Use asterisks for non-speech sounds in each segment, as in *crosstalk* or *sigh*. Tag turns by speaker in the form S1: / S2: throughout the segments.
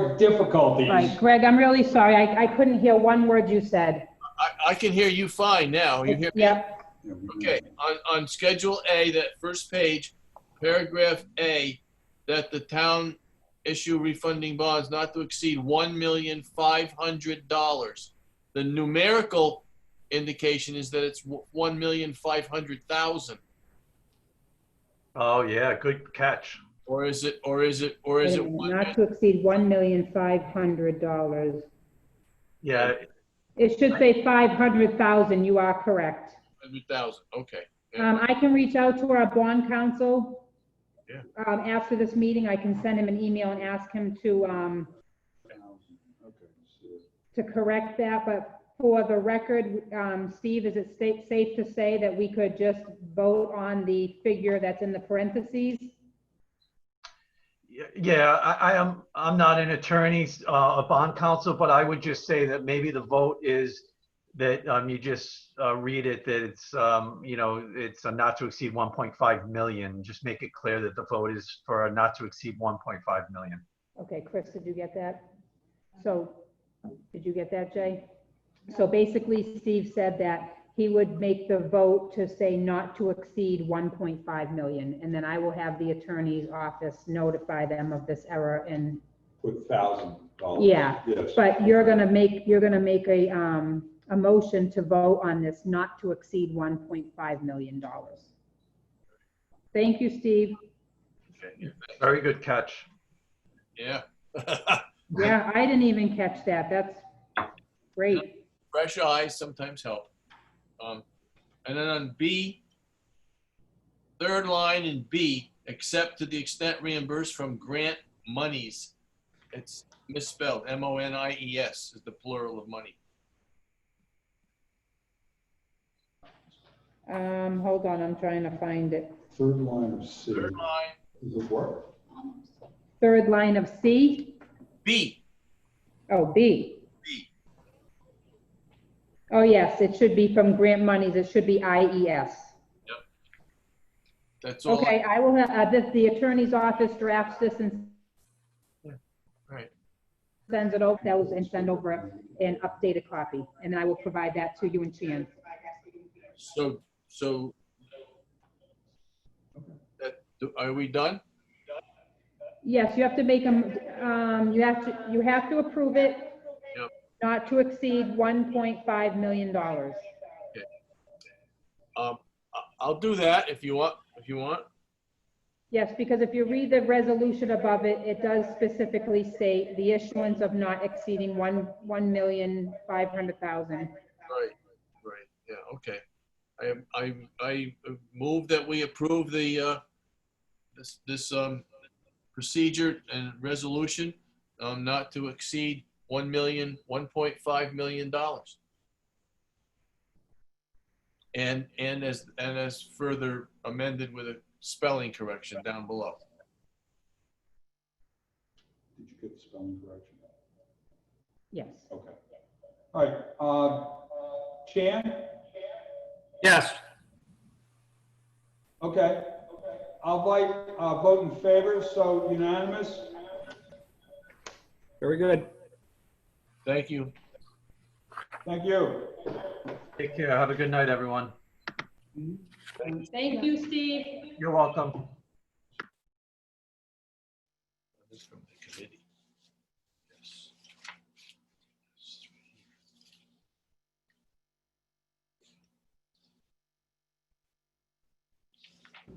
S1: more difficulties.
S2: Right, Greg, I'm really sorry. I, I couldn't hear one word you said.
S3: I, I can hear you fine now. You hear me?
S2: Yep,
S3: Okay, on, on Schedule A, that first page, paragraph A, that the town issue refunding bonds not to exceed one million five hundred dollars. The numerical indication is that it's one million five hundred thousand,
S4: Oh, yeah, good catch.
S3: or is it, or is it, or is it? one
S2: not to exceed one million five hundred dollars.
S4: Yeah,
S2: It should say five hundred thousand, you are correct.
S3: hundred thousand? Okay.
S2: Um, I can reach out to our bond counsel.
S3: Yeah.
S2: Um, after this meeting, I can send him an email and ask him to, um, to correct that, but for the record, um, Steve, is it sta- safe to say that we could just vote on the figure that's in the parentheses?
S4: y- yeah, I, I am, I'm not an attorney, uh, a bond counsel, but I would just say that maybe the vote is that, um, you just, uh, read it, that it's, um, you know, it's a not to exceed 1.5 million. Just make it clear that the vote is for a not to exceed 1.5 million.
S2: Okay, Chris, did you get that? So, did you get that, Jay? So basically, Steve said that he would make the vote to say not to exceed 1.5 million, and then I will have the attorney's office notify them of this error, and,
S1: With thousand dollars.
S2: Yeah,
S1: Yes.
S2: but you're gonna make, you're gonna make a, um, a motion to vote on this not to exceed 1.5 million dollars. Thank you, Steve.
S3: Okay.
S4: Very good catch.
S3: Yeah. *laughs*
S2: Yeah, I didn't even catch that, that's great.
S3: Fresh eyes sometimes help. Um, and then on B, third line in B, except to the extent reimbursed from grant monies. It's misspelled, M-O-N-I-E-S E is the plural of money.
S2: Um, hold on, I'm trying to find it.
S1: Third line of C
S3: Third line,
S1: is a word.
S2: Third line of C,
S3: B,
S2: oh, B.
S3: B.
S2: Oh, yes, it should be from grant monies, it should be IES.
S3: that's all.
S2: Okay, I will, uh, the, the attorney's office drafts this and
S3: Right.
S2: sends it over, those and send over an updated copy, and I will provide that to you and Chan.
S3: So, so. That, are we done?
S2: Yes, you have to make them, um, you have to, you have to approve it.
S3: Yep.
S2: Not to exceed one point five million dollars.
S3: Um, I- I'll do that if you want, if you want.
S2: Yes, because if you read the resolution above it, it does specifically state the issuance of not exceeding one, one million, five hundred thousand.
S3: Right, right, yeah, okay. I, I, I move that we approve the, uh, this, this, um, procedure and resolution, um, not to exceed one million, one point five million dollars. And, and as, and as further amended with a spelling correction down below.
S1: Did you get the spelling correction?
S2: Yes.
S1: Okay. All right, uh, Chan?
S5: Yes,
S1: Okay. I'll vote, uh, vote in favor, so unanimous.
S5: very good.
S3: Thank you.
S1: Thank you.
S4: Take care. Have a good night, everyone.
S2: Thank you, Steve.
S4: You're welcome.
S3: This is from the committee. Yes.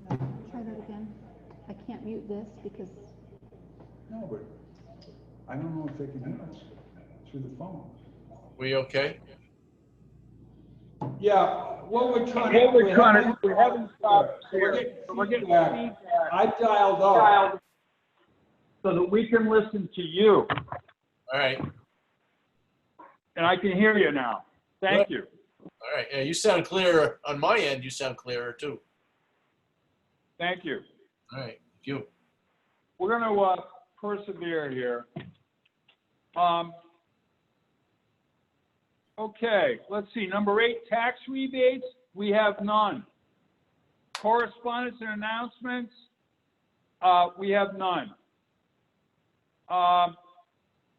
S6: Try that again. I can't mute this because,
S1: No, but I don't know if they can hear us through the phone.
S3: We okay?
S1: Yeah, what we're trying to.
S7: Hey, we're trying to, we're having problems
S1: We're
S7: here.
S1: getting
S7: We're getting
S1: feedback.
S7: feedback
S1: I dialed up.
S7: so that we can listen to you.
S3: All right, all
S7: And I can hear you now. Thank you.
S3: right. Yeah, you sound clearer. On my end, you sound clearer too.
S7: Thank you.
S3: All right, you.
S7: We're going to uh, persevere here. Um, okay, let's see. Number eight, tax rebates. We have none. Correspondence and announcements. Uh, we have none. Um,